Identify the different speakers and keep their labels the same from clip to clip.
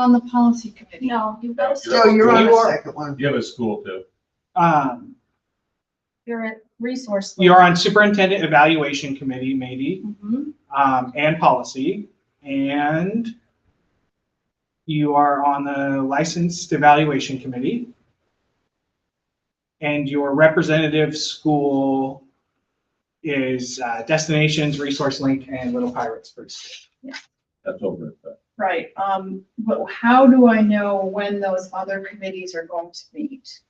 Speaker 1: on the policy committee.
Speaker 2: No, you've got to,
Speaker 1: No, you're on
Speaker 3: You
Speaker 1: the
Speaker 3: are-
Speaker 1: second one.
Speaker 3: You have a school too.
Speaker 4: Um,
Speaker 2: you're at resource.
Speaker 4: you're on superintendent evaluation committee, maybe,
Speaker 2: Mhm.
Speaker 4: um, and policy, and you are on the licensed evaluation committee. And your representative school is uh, Destinations, Resource Link, and Little Pirates First.
Speaker 3: That's over. it, but-
Speaker 2: Right, um, but how do I know when those other committees are going to meet?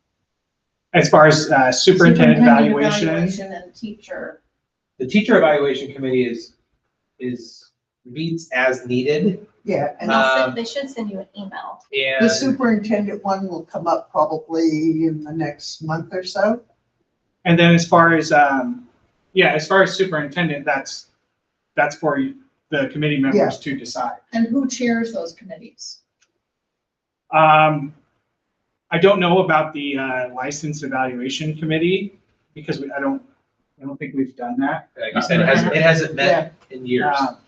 Speaker 4: As far as uh, superintendent evaluation,
Speaker 2: evaluation And teacher,
Speaker 5: The teacher evaluation committee is, is, meets as needed
Speaker 1: Yeah,
Speaker 6: And
Speaker 1: and
Speaker 6: they'll send,
Speaker 5: Um,
Speaker 6: they should send you an email.
Speaker 1: the
Speaker 5: and,
Speaker 1: superintendent one will come up probably in the next month or so.
Speaker 4: And then as far as, um, yeah, as far as superintendent, that's, that's for you- the committee members to decide.
Speaker 2: and who chairs those committees?
Speaker 4: Um, I don't know about the, uh, license evaluation committee because we, I don't, I don't think we've done that.
Speaker 5: like you said, it hasn't, it hasn't met in years.
Speaker 4: Um,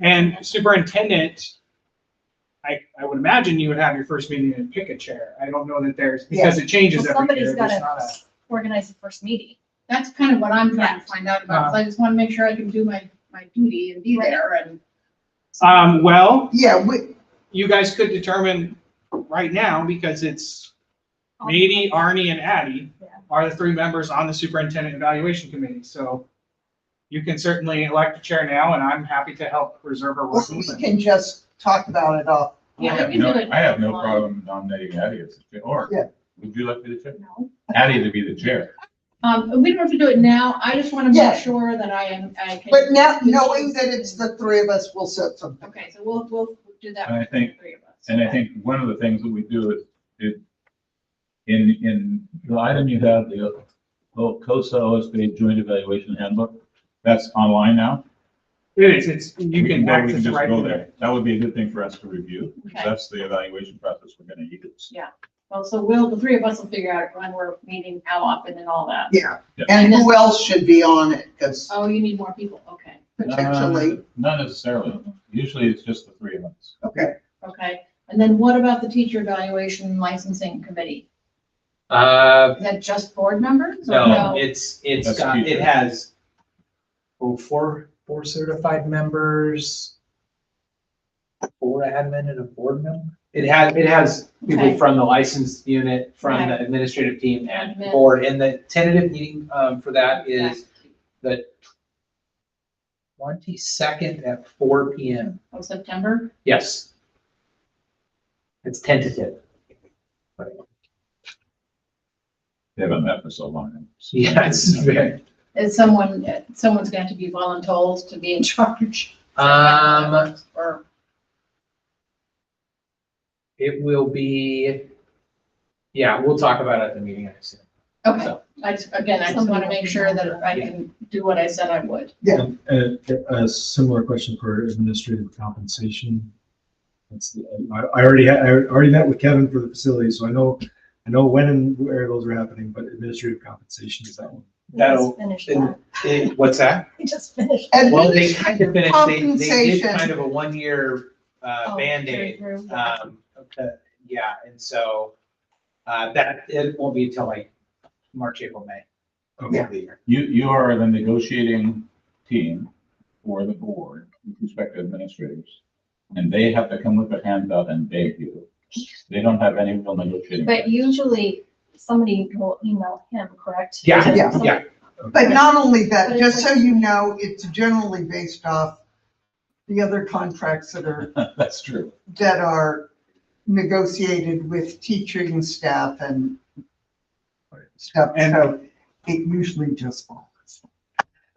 Speaker 4: And superintendent, I, I would imagine you would have your first meeting and pick a chair. I don't know that there's, because it
Speaker 6: Well,
Speaker 4: changes every year.
Speaker 6: somebody's
Speaker 4: There's not
Speaker 6: gotta
Speaker 4: a-
Speaker 6: organize the first meeting.
Speaker 2: That's kind of what I'm trying to find out about, 'cause
Speaker 3: Uh-huh.
Speaker 2: I just want to make sure I can do my, my duty and be there and.
Speaker 4: Um, well,
Speaker 1: Yeah, we,
Speaker 4: you guys could determine right now because it's Meady, Arnie, and Addie
Speaker 6: Yeah.
Speaker 4: are the three members on the superintendent evaluation committee, so you can certainly elect a chair now, and I'm happy to help reserve a role.
Speaker 1: we can just talk about it all.
Speaker 6: Yeah,
Speaker 3: I
Speaker 6: we
Speaker 3: have
Speaker 6: can do
Speaker 3: no-
Speaker 6: it
Speaker 3: I have no
Speaker 6: online.
Speaker 3: problem nominating Addie as the chair, or
Speaker 1: Yeah.
Speaker 3: would you like to be the chair?
Speaker 2: No.
Speaker 3: Addie to be the chair.
Speaker 2: Um, we don't have to do it now, I just want to
Speaker 1: Yeah.
Speaker 2: make sure that I am, I can.
Speaker 1: But now, knowing that it's the three of us, we'll set something.
Speaker 2: Okay, so we'll, we'll do that.
Speaker 3: And I
Speaker 2: with
Speaker 3: think-
Speaker 2: the three of us.
Speaker 3: And I think one of the things that we do is, is in, in the item you have, the O- COSA OSBA Joint Evaluation Handbook, that's online now.
Speaker 4: It is, it's, you
Speaker 3: We
Speaker 4: can
Speaker 3: go- we
Speaker 4: access it
Speaker 3: just
Speaker 4: right
Speaker 3: go
Speaker 4: from there.
Speaker 3: That would be a good thing for us to review.
Speaker 2: Okay.
Speaker 3: That's the evaluation process we're gonna use.
Speaker 2: Well, so we'll, the three of us will figure out when we're meeting, how often and all that.
Speaker 1: Yeah,
Speaker 3: Yeah.
Speaker 1: and who else should be on it, because
Speaker 2: Oh, you need more people, okay,
Speaker 1: potentially,
Speaker 3: Uh, Not necessarily. Usually it's just the three of us.
Speaker 1: okay.
Speaker 2: okay. And then what about the teacher evaluation licensing committee?
Speaker 5: Uh,
Speaker 2: Is that just board members? or
Speaker 5: no, it's, it's
Speaker 3: That's
Speaker 5: got,
Speaker 3: teacher.
Speaker 5: it has, oh, four, four certified members, four admin and a board member. It has, it has people
Speaker 2: Okay.
Speaker 5: from the licensed unit, from the
Speaker 2: Okay.
Speaker 5: administrative team and
Speaker 2: Admin.
Speaker 5: board, and the tentative meeting, um, for that is the twenty-second at four P M.
Speaker 2: Of Oh, September?
Speaker 5: Yes. It's tentative.
Speaker 3: They haven't met for so long.
Speaker 5: Yeah, it's very-
Speaker 2: Is someone, someone's going to be voluntold to be in charge?
Speaker 5: Um,
Speaker 2: Or,
Speaker 5: it will be, yeah, we'll talk about it at the meeting, I assume.
Speaker 2: okay, I, just- again, I just want to make sure that I can do what I said I would.
Speaker 7: A, Uh, a similar question for administrative compensation. That's the, I, I already had, I already met with Kevin for the facility, so I know, I know when and where those are happening, but administrative compensation is that one.
Speaker 6: We just
Speaker 5: That'll-
Speaker 6: Finish
Speaker 5: and-
Speaker 6: that.
Speaker 5: Eh, What's that?
Speaker 6: We just finished.
Speaker 5: Well, they kind of finished, they, they did
Speaker 1: Compensation.
Speaker 5: kind of a one-year, uh,
Speaker 6: Oh,
Speaker 5: Band-Aid.
Speaker 6: through- through.
Speaker 5: Um, okay, yeah, and so, uh, that, it won't be until like March, April, May. of
Speaker 1: Yeah.
Speaker 5: the year.
Speaker 3: You, you are the negotiating team for the board with respect to administrators. And they have to come with their hands out and beg you. They don't have any real negotiating.
Speaker 6: But usually somebody will email him, correct?
Speaker 5: Yeah,
Speaker 1: Yeah.
Speaker 6: Somebody-
Speaker 5: yeah.
Speaker 1: But not only that,
Speaker 6: But
Speaker 1: just
Speaker 6: it's
Speaker 1: so you know, it's generally based off the other contracts that are,
Speaker 3: That's true.
Speaker 1: that are negotiated with teaching staff and stuff,
Speaker 4: And-
Speaker 1: so it usually just falls.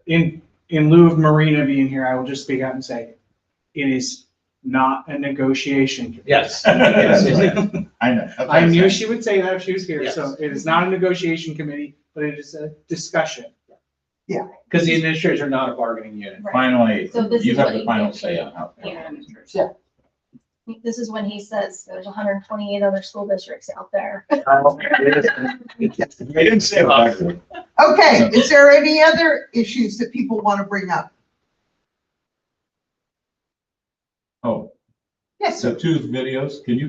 Speaker 4: In, in lieu of Marina being here, I will just speak out and say, it is not a negotiation.
Speaker 5: Yes.
Speaker 3: Yes,
Speaker 5: Yes, yes.
Speaker 3: yes, yes. I know. That's what
Speaker 4: I
Speaker 3: I'm
Speaker 4: knew
Speaker 3: saying.
Speaker 4: she would say that if she was here, so it is not a negotiation committee, but it is a discussion.
Speaker 5: Because the administrators are not a bargaining unit.
Speaker 6: Right.
Speaker 3: Finally,
Speaker 6: So this
Speaker 3: you
Speaker 6: is
Speaker 3: have
Speaker 6: what
Speaker 3: the
Speaker 6: you
Speaker 3: final
Speaker 6: get.
Speaker 3: say on how.
Speaker 6: Yeah.
Speaker 1: Yeah.
Speaker 6: This is when he says there's hundred and twenty-eight other school districts out there.
Speaker 3: I didn't say that.
Speaker 1: Okay, is there any other issues that people want to bring up?
Speaker 3: Oh,
Speaker 1: Yes, sir.
Speaker 3: so two videos, can you